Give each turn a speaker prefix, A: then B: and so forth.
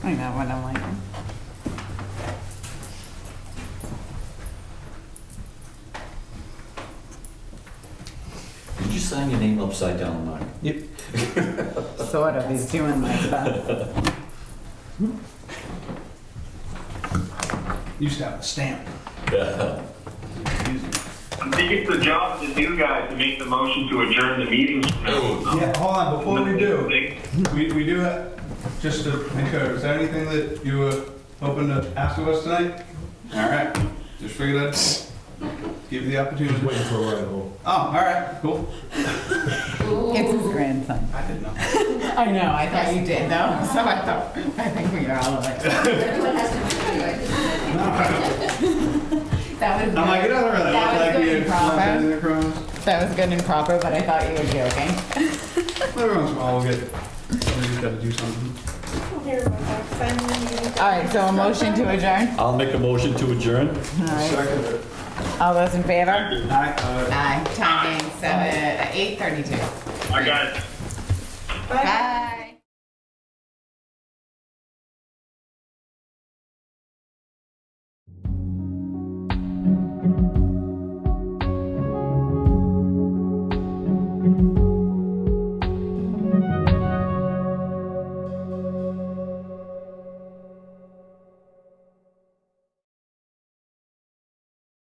A: I know what I'm like.
B: Did you sign your name upside down, Mark?
C: Yep.
A: Sort of, he's doing my stuff.
C: Used to have a stamp.
D: I think it's the job of the new guy to make the motion to adjourn the meeting.
C: Yeah, hold on, before we do, we, we do have, just to make sure, is there anything that you were hoping to ask of us tonight? All right, just figured I'd give you the opportunity. Waiting for a ride Oh, all right, cool.
A: It's his grandson.
C: I didn't know.
A: I know, I thought you did though, so I thought, I think we are all like.
E: Everyone has to
A: That was,
C: I'm like, it
A: good-
C: doesn't really look
A: That was
C: like
A: good
C: you.
A: and proper.
C: Nothing to cross.
A: that was good and proper, but I thought you were joking.
C: Every once in a while, we'll get, somebody who's gotta do something.
E: do it.
A: All right, so a motion to adjourn.
B: I'll make a motion to adjourn.
A: All right,
C: Second it.
A: all those in favor?
C: Aye. Uh,
A: Aye, time being seven, eight thirty-two.
D: I got it.
A: Bye.